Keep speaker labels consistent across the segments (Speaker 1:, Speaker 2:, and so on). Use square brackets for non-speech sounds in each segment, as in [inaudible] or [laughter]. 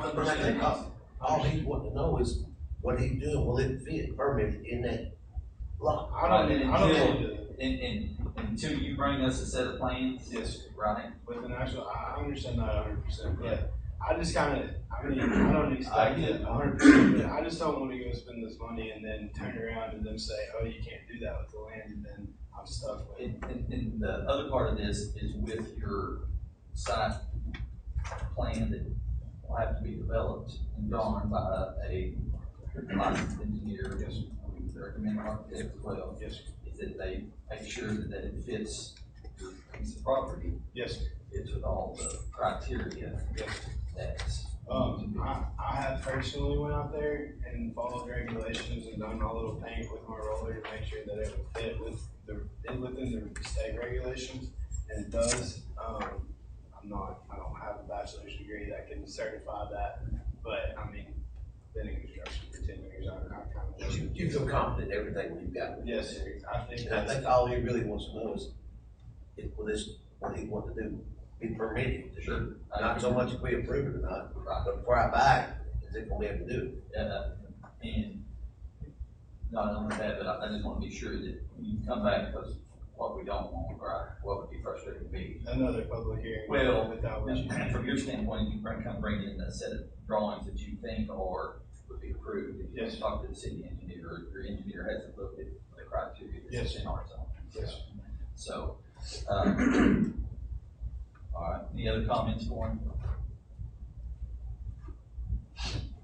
Speaker 1: hundred percent.
Speaker 2: All he's wanting to know is, what he doing, will it fit permit in that block?
Speaker 1: I don't, I don't think,
Speaker 3: And, and, until you bring us a set of plans,
Speaker 1: yes,
Speaker 3: right?
Speaker 1: with the national, I I understand that hundred percent,
Speaker 3: Yeah.
Speaker 1: but I just kinda, I mean, I don't
Speaker 3: I
Speaker 1: expect
Speaker 3: get
Speaker 1: it hundred percent, but I just don't wanna go spend this money and then turn around and then say, oh, you can't do that with the land, and then I'm stuck with it.
Speaker 3: And, and, and the other part of this is with your site plan that will have to be developed and drawn by a licensed engineer.
Speaker 1: Yes, sir.
Speaker 3: We would recommend architect as well,
Speaker 1: Yes, sir.
Speaker 3: is that they make sure that it fits your piece of property,
Speaker 1: yes, sir.
Speaker 3: fits with all the criteria
Speaker 1: yes. sir.
Speaker 3: that's.
Speaker 1: Um, I, I have personally went out there and followed regulations and done my little paint with my roller to make sure that it would fit with the, it within the state regulations, and it does. Um, I'm not, I don't have a bachelor's degree that can certify that, but I mean, been in construction for ten years, I, I kind of.
Speaker 2: You, you feel confident in everything we've got.
Speaker 1: Yes, sir, I think
Speaker 2: And I
Speaker 1: that's,
Speaker 2: think all he really wants to know is, if, will this, what he want to do, be permitted to do? Not so much if we approve it or not,
Speaker 3: Right.
Speaker 2: but before I buy it, is it gonna be able to do? it?
Speaker 3: Uh, and not only that, but I I just want to be sure that you come back, because what we don't want, right, what would be frustrating to me.
Speaker 1: another public hearing.
Speaker 3: Well,
Speaker 1: Without which.
Speaker 3: And From your standpoint, you bring, come bring in a set of drawings that you think are, would be approved. and you
Speaker 1: Yes.
Speaker 3: Talk to the city engineer, or your engineer hasn't looked at the criteria
Speaker 1: Yes.
Speaker 3: that's in our zone.
Speaker 1: Yes, sir.
Speaker 3: So, um, [clears throat] all right, any other comments, Warren?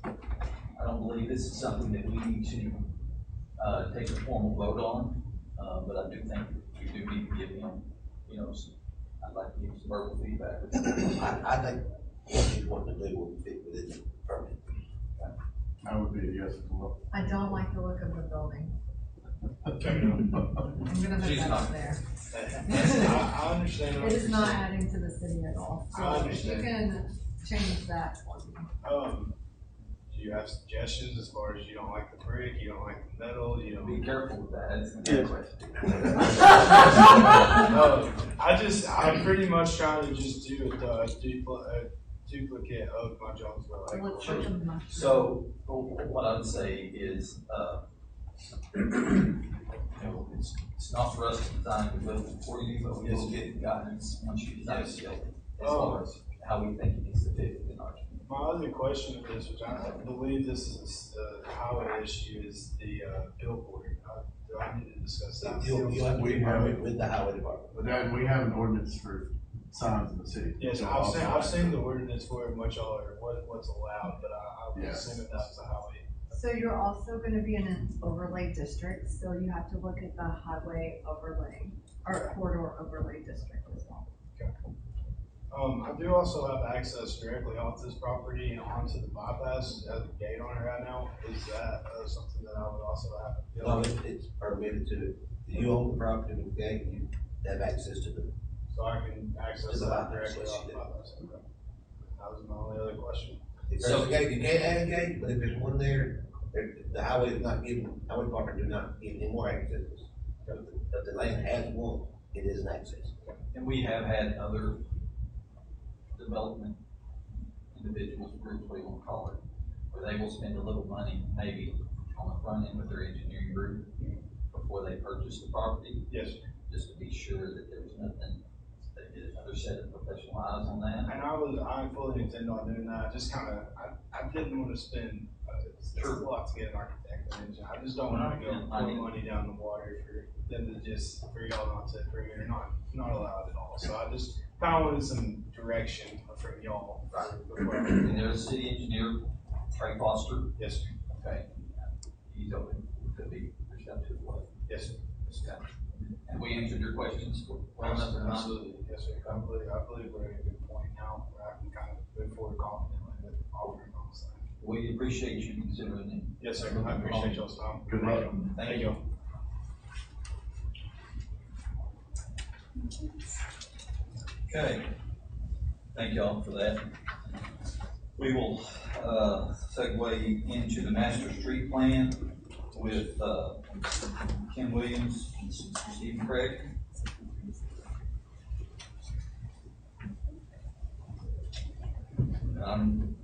Speaker 3: I don't believe this is something that we need to, uh, take a formal vote on, uh, but I do think we do need to give him, you know, some, I'd like to give some verbal feedback.
Speaker 2: I, I think what he's wanting to do will fit within the permit.
Speaker 4: I would be a yes as well.
Speaker 5: I don't like the look of the building.
Speaker 1: Fair enough.
Speaker 5: I'm gonna put
Speaker 3: She's
Speaker 5: that
Speaker 3: not.
Speaker 5: up there.
Speaker 1: [laughs] I, I understand. what
Speaker 5: It is
Speaker 1: you're
Speaker 5: not
Speaker 1: saying.
Speaker 5: adding to the city at all. So
Speaker 1: I
Speaker 5: if you can change that for me.
Speaker 1: Um, do you have suggestions as far as you don't like the brick, you don't like the metal, you
Speaker 3: Be
Speaker 1: don't?
Speaker 3: careful with that, it's a good question.
Speaker 1: Um, I just, I'm pretty much trying to just do a uh, dupli- a duplicate of my Jonesboro. like,
Speaker 5: Let's put them up.
Speaker 3: So, wh- what I would say is, uh, [clears throat] you know, it's, it's not for us to design the building for you, but we will get guidance once you design the building. As far as how we think it needs to fit within our community.
Speaker 1: My other question of this, which I believe this is the highway issue, is the uh, billboard. Uh, Do I need to discuss that?
Speaker 2: You'll, you'll have to be permitted with the highway department.
Speaker 4: But then we have an ordinance for signs in the city.
Speaker 1: Yes,
Speaker 4: So
Speaker 1: I've seen,
Speaker 4: also-
Speaker 1: I've seen the ordinance for it much all, or what, what's allowed, but I, I would
Speaker 4: Yes.
Speaker 1: assume that that's a highway.
Speaker 5: So you're also gonna be in an overlay district, so you have to look at the highway overlay or corridor overlay district as well.
Speaker 1: Um, I do also have access directly off this property and onto the bypass, It has a gate on it right now, is that, uh, something that I would also have? to deal
Speaker 2: No,
Speaker 1: with?
Speaker 2: it's, it's permitted to, you own the property with the gate, you have access to the,
Speaker 1: So I can access
Speaker 2: Just the
Speaker 1: that
Speaker 2: bypass,
Speaker 1: directly off the
Speaker 2: yeah.
Speaker 1: bypass, okay. That was my only other question.
Speaker 2: if there's a gate, you can't add a gate, but if there's one there, there, the highway is not giving, highway department do not give any more access. If the land has one, it is an access.
Speaker 3: And we have had other development individuals, groups, what you wanna call it, where they will spend a little money, maybe on the front end with their engineering group before they purchase the property,
Speaker 1: Yes,
Speaker 3: just to be sure that there was nothing, they did another set of professional eyes on that.
Speaker 1: and I was, I fully intend on doing that, I just kinda, I, I didn't wanna spend, uh, it's it's a
Speaker 3: Sure.
Speaker 1: lot to get an architect and engineer, I just don't wanna go
Speaker 3: Yeah, I
Speaker 1: put
Speaker 3: mean-
Speaker 1: money down the water for them to just, for y'all not to, for you're not, not allowed at all, so I just kinda wanted some direction from y'all. before I-
Speaker 3: And there's a city engineer, Trey Foster,
Speaker 1: Yes, sir.
Speaker 3: okay, he's open to be receptive to what
Speaker 1: yes, sir.
Speaker 3: this guy. And we answered your questions well enough or not?
Speaker 1: absolutely, yes, sir. I believe, I believe we're at a good point now where I can kind of move forward confidently with offering on the side.
Speaker 3: We appreciate you considering it.
Speaker 1: Yes, sir, I appreciate y'all's time.
Speaker 4: Good luck.
Speaker 1: Thank you.
Speaker 3: Okay. Thank y'all for that. We will, uh, segue into the master street plan with, uh, Ken Williams and Stephen Craig. Um,